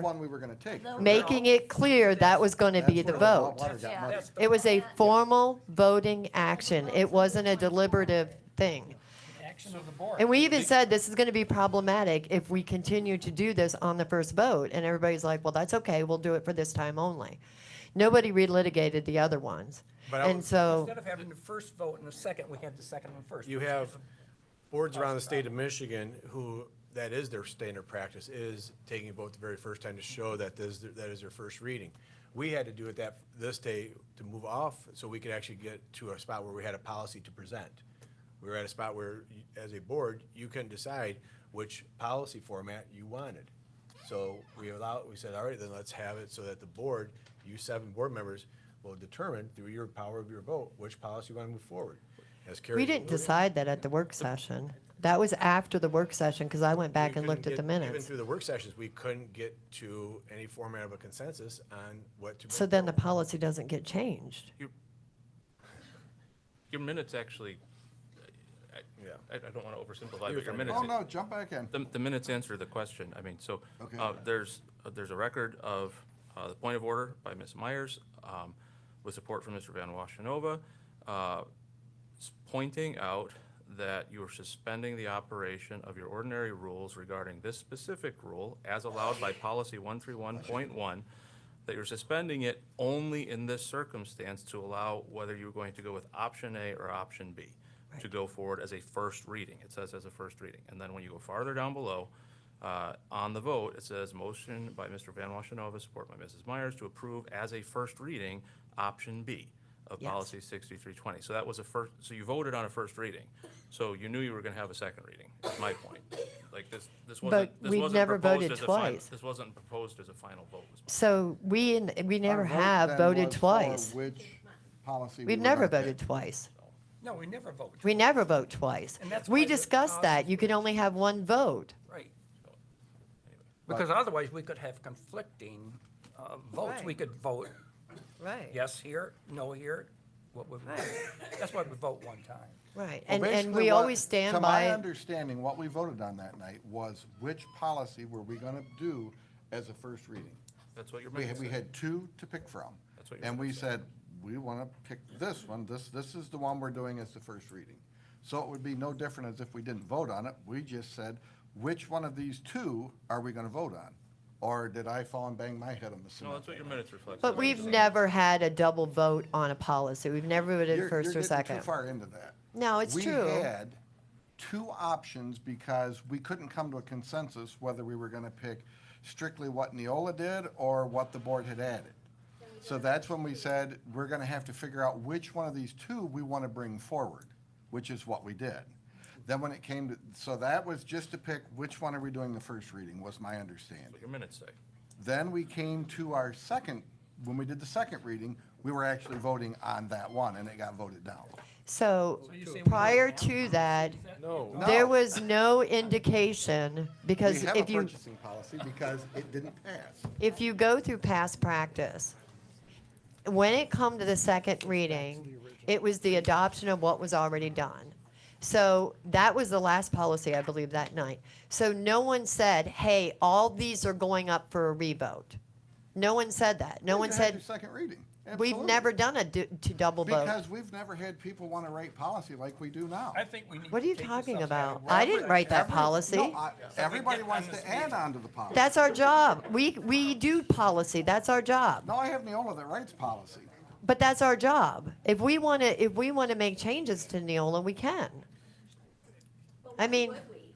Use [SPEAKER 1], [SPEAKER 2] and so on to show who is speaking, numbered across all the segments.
[SPEAKER 1] one we were going to take.
[SPEAKER 2] making it clear that was going to be the
[SPEAKER 1] That's where
[SPEAKER 2] vote.
[SPEAKER 1] Water got muddy.
[SPEAKER 2] It was a formal voting action. It wasn't a deliberative thing.
[SPEAKER 3] Action of the board.
[SPEAKER 2] And we even said this is going to be problematic if we continue to do this on the first vote. And everybody's like, well, that's okay, we'll do it for this time only. Nobody relitigated the other ones.
[SPEAKER 4] But I
[SPEAKER 2] And
[SPEAKER 4] was-
[SPEAKER 2] so,
[SPEAKER 3] Instead of having the first vote and the second, we had the second one first.
[SPEAKER 4] You have boards around the state of Michigan who, that is their standard practice, is taking a vote the very first time to show that this, that is their first reading. We had to do it that, this day to move off, so we could actually get to a spot where we had a policy to present. We were at a spot where, you- as a board, you couldn't decide which policy format you wanted. So we allowed, we said, all right, then let's have it so that the board, you seven board members, will determine through your power of your vote, which policy you want to move forward. As Carrie
[SPEAKER 2] we didn't
[SPEAKER 4] alluded-
[SPEAKER 2] decide that at the work session. That was after the work session because I went back
[SPEAKER 4] we
[SPEAKER 2] and
[SPEAKER 4] couldn't
[SPEAKER 2] looked at the
[SPEAKER 4] get- Even
[SPEAKER 2] minutes.
[SPEAKER 4] through the work sessions, we couldn't get to any format of a consensus on what to.
[SPEAKER 2] So
[SPEAKER 4] bring
[SPEAKER 2] then the
[SPEAKER 4] forward.
[SPEAKER 2] policy doesn't get changed.
[SPEAKER 5] Your minutes actually,
[SPEAKER 4] Yeah.
[SPEAKER 5] I, I don't want to oversimplify,
[SPEAKER 4] You're
[SPEAKER 5] but your
[SPEAKER 4] fine.
[SPEAKER 5] minutes.
[SPEAKER 1] Oh, no, jump back in.
[SPEAKER 5] The, the minutes answer the question. I mean, so,
[SPEAKER 1] Okay.
[SPEAKER 5] uh, there's, uh, there's a record of, uh, the point of order by Ms. Myers, um, with support from Mr. Van Washenova, uh, s- pointing out that you are suspending the operation of your ordinary rules regarding this specific rule as allowed by policy one three one point one, that you're suspending it only in this circumstance to allow whether you're going to go with option A or option B to go forward as a first reading. It says as a first reading. And then when you go farther down below, uh, on the vote, it says motion by Mr. Van Washenova, support by Mrs. Myers to approve as a first reading, option B of
[SPEAKER 2] Yes.
[SPEAKER 5] policy 6320. So that was a first, so you voted on a first reading. So you knew you were going to have a second reading, is my point. Like this, this wasn't,
[SPEAKER 2] But
[SPEAKER 5] this
[SPEAKER 2] we've
[SPEAKER 5] wasn't
[SPEAKER 2] never
[SPEAKER 5] proposed
[SPEAKER 2] voted
[SPEAKER 5] as a fin-
[SPEAKER 2] twice.
[SPEAKER 5] This wasn't proposed as a final vote. was my-
[SPEAKER 2] So we, n- we never
[SPEAKER 1] Our vote
[SPEAKER 2] have
[SPEAKER 1] then
[SPEAKER 2] voted
[SPEAKER 1] was for
[SPEAKER 2] twice.
[SPEAKER 1] Which policy? we
[SPEAKER 2] We've
[SPEAKER 1] were
[SPEAKER 2] never
[SPEAKER 1] gonna
[SPEAKER 2] voted
[SPEAKER 1] take.
[SPEAKER 2] twice.
[SPEAKER 3] No, we never vote.
[SPEAKER 2] We never vote twice.
[SPEAKER 3] And that's
[SPEAKER 2] We
[SPEAKER 3] why the
[SPEAKER 2] discussed that.
[SPEAKER 3] policy
[SPEAKER 2] You can only have one vote.
[SPEAKER 3] Right. Because otherwise, we could have conflicting uh, votes. We
[SPEAKER 2] Right.
[SPEAKER 3] could vote
[SPEAKER 2] Right.
[SPEAKER 3] yes here, no here, what would, we- that's why we vote one time.
[SPEAKER 2] Right.
[SPEAKER 1] Well,
[SPEAKER 2] And, and
[SPEAKER 1] basically
[SPEAKER 2] we
[SPEAKER 1] what-
[SPEAKER 2] always stand
[SPEAKER 1] To my
[SPEAKER 2] by,
[SPEAKER 1] understanding, what we voted on that night was which policy were we going to do as a first reading?
[SPEAKER 5] That's what your
[SPEAKER 1] We had,
[SPEAKER 5] minutes
[SPEAKER 1] we
[SPEAKER 5] said.
[SPEAKER 1] had two to pick from.
[SPEAKER 5] That's what your
[SPEAKER 1] And we
[SPEAKER 5] minutes
[SPEAKER 1] said, we want to pick this one, this, this is the one we're doing as the first reading. So it would be no different as if we didn't vote on it, we just said, which one of these two are we going to vote on? Or did I fall and bang my head on the
[SPEAKER 5] No,
[SPEAKER 1] cement?
[SPEAKER 5] that's what your minutes reflect.
[SPEAKER 2] but we've never had a double vote on a policy. We've never voted
[SPEAKER 1] You're-
[SPEAKER 2] first or
[SPEAKER 1] you're getting
[SPEAKER 2] second.
[SPEAKER 1] Too far into that.
[SPEAKER 2] No, it's
[SPEAKER 1] We
[SPEAKER 2] true.
[SPEAKER 1] had two options because we couldn't come to a consensus whether we were going to pick strictly what Neola did or what the board had added. So that's when we said, we're going to have to figure out which one of these two we want to bring forward, which is what we did. Then when it came to, so that was just to pick which one are we doing the first reading, was my understanding.
[SPEAKER 5] What your minutes say.
[SPEAKER 1] Then we came to our second, when we did the second reading, we were actually voting on that one, and it got voted down.
[SPEAKER 2] So
[SPEAKER 3] So you're saying we
[SPEAKER 2] prior
[SPEAKER 3] don't have
[SPEAKER 2] to that,
[SPEAKER 4] No,
[SPEAKER 2] there
[SPEAKER 1] No.
[SPEAKER 2] was no indication because
[SPEAKER 1] We have a
[SPEAKER 2] if you,
[SPEAKER 1] purchasing policy because it didn't pass.
[SPEAKER 2] if you go through past practice, when it come to the second reading, it was the adoption of what was already done. So that was the last policy, I believe, that night. So no one said, hey, all these are going up for a revote. No one said that. No
[SPEAKER 1] You
[SPEAKER 2] one
[SPEAKER 1] had your
[SPEAKER 2] said,
[SPEAKER 1] Second reading.
[SPEAKER 2] we've
[SPEAKER 1] Absolutely.
[SPEAKER 2] never done a d- to double vote.
[SPEAKER 1] Because we've never had people want to write policy like we do now.
[SPEAKER 3] I think we need.
[SPEAKER 2] What are
[SPEAKER 3] to
[SPEAKER 2] you
[SPEAKER 3] take this
[SPEAKER 2] talking
[SPEAKER 3] outside of
[SPEAKER 2] about?
[SPEAKER 3] work.
[SPEAKER 2] I didn't write that
[SPEAKER 1] Every-
[SPEAKER 2] policy.
[SPEAKER 1] no, I- Everybody wants to add on to the policy.
[SPEAKER 2] That's our job. We, we do policy. That's our job.
[SPEAKER 1] No, I have Neola that writes policy.
[SPEAKER 2] But that's our job. If we want to, if we want to make changes to Neola, we can.
[SPEAKER 6] But
[SPEAKER 2] I
[SPEAKER 6] why
[SPEAKER 2] mean-
[SPEAKER 6] would we?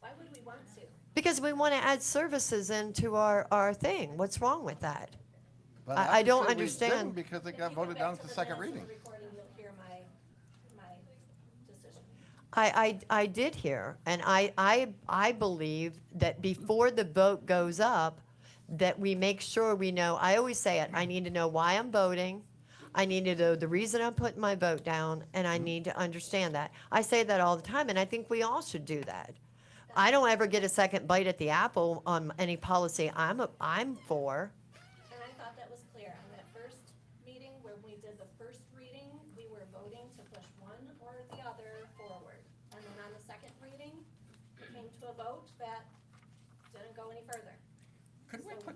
[SPEAKER 6] Why would we want to?
[SPEAKER 2] Because we want to add services into our, our thing. What's wrong with that?
[SPEAKER 1] But
[SPEAKER 2] I- I
[SPEAKER 1] would
[SPEAKER 2] don't
[SPEAKER 1] say we
[SPEAKER 2] understand.
[SPEAKER 1] didn't Because it
[SPEAKER 6] If
[SPEAKER 1] got
[SPEAKER 6] you go
[SPEAKER 1] voted
[SPEAKER 6] back
[SPEAKER 1] down
[SPEAKER 6] to
[SPEAKER 1] at the
[SPEAKER 6] the
[SPEAKER 1] second
[SPEAKER 6] minutes of
[SPEAKER 1] reading.
[SPEAKER 6] the Recording, you'll hear my, my decision.
[SPEAKER 2] I, I, I did hear, and I, I, I believe that before the vote goes up, that we make sure we know, I always say it, I need to know why I'm voting. I need to know the reason I'm putting my vote down, and I need to understand that. I say that all the time, and I think we all should do that. I don't ever get a second bite at the apple on any policy I'm, I'm for.
[SPEAKER 6] And I thought that was clear. On that first meeting where we did the first reading, we were voting to push one or the other forward. And then on the second reading, we came to a vote that didn't go any further.
[SPEAKER 3] Could we put